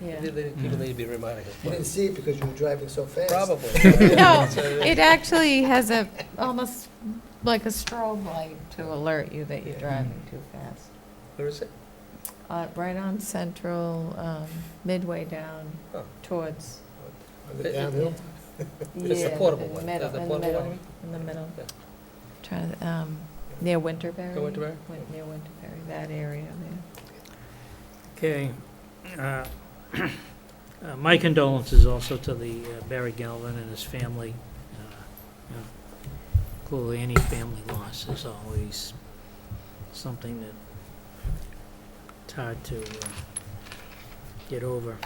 Yeah. They- they- People need to be reminded. of You didn't see it because you were driving so fast. Probably. No, So, it actually has a, almost like a strobe light to alert you that you're driving too fast. Where is it? Uh, Right on Central, um, midway down Oh. towards. On the downhill. It's the Yeah, portable in the one, middle- the- the in portable middle, one. In the middle. Yeah. Trying to, um, near Winterberry. Go Winterberry? Win- Near Winterberry, that area there. Okay. uh, uh, My condolences also to the uh, Barry Galvin and his family. Uh, you know, Clearly, any family loss is always something that it's hard to uh, get over.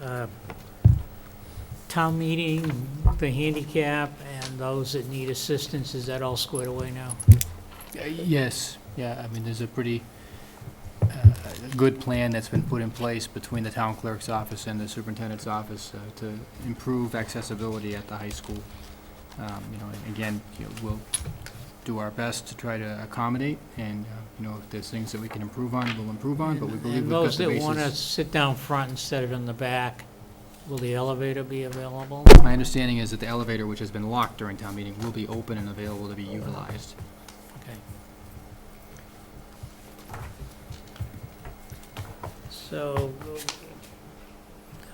Uh, Town meeting, the handicap, and those that need assistance, is that all squared away now? Uh, Yes, yeah, I mean, there's a pretty uh, good plan that's been put in place between the town clerk's office and the superintendent's office uh, to improve accessibility at the high school. Um, You know, and again, you know, we'll do our best to try to accommodate, and, uh, you know, if there's things that we can improve on, we'll improve on, but we And- believe we've got the And those that want to basis. sit down front instead of in the back, will the elevator be available? My understanding is that the elevator, which has been locked during town meeting, will be open and available to be utilized. Okay. So,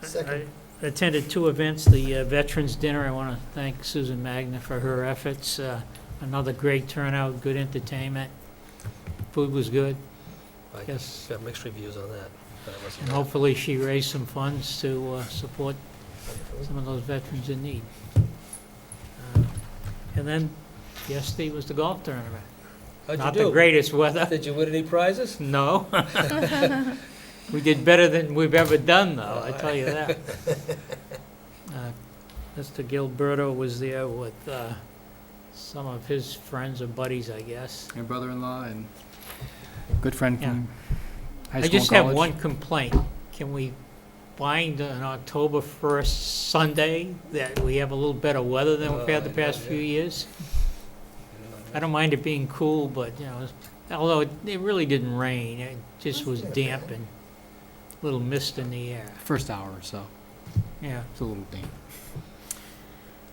I Second. attended two events, the uh, Veterans Dinner, I want to thank Susan Magna for her efforts. Uh, Another great turnout, good entertainment, food was good, I Yes. got mixed reviews on that, but it wasn't. and hopefully she raised some funds to uh, support some of those veterans in need. Uh, And then, yesterday was the golf tournament. How'd you Not do? the greatest weather, Did you win any prizes? no. We did better than we've ever done, though, I tell you that. Uh, Mr. Gilberto was there with uh, some of his friends and buddies, I guess. Your brother-in-law and good friend from high school I and just have college. one complaint. Can we find an October 1st Sunday that we have a little better weather than we've had the Uh, past yeah. few years? I don't mind it being cool, but, you know, although it it really didn't rain, it just was damp and a little mist in the air, First hour or so. yeah. It's a little damp.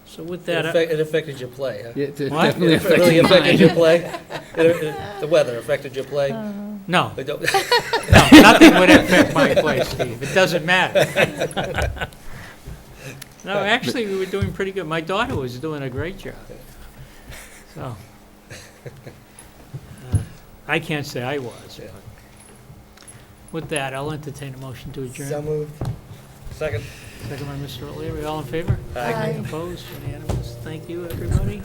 So with It that, uh, I- affect- it affected your play, huh? It What? definitely It really affected affected mine. your play? It- it- The weather affected your play? Uh. no, I don't- no, nothing would affect my play, Steve, it doesn't matter. No, actually, we were doing pretty good, my daughter was doing a great job, so. uh, I can't say I was, Yeah. but with that, I'll entertain a motion to So adjourn. moved. Second. Second by Mr. O'Leary, all in favor? Aye. Opposed, unanimous, thank you, everybody.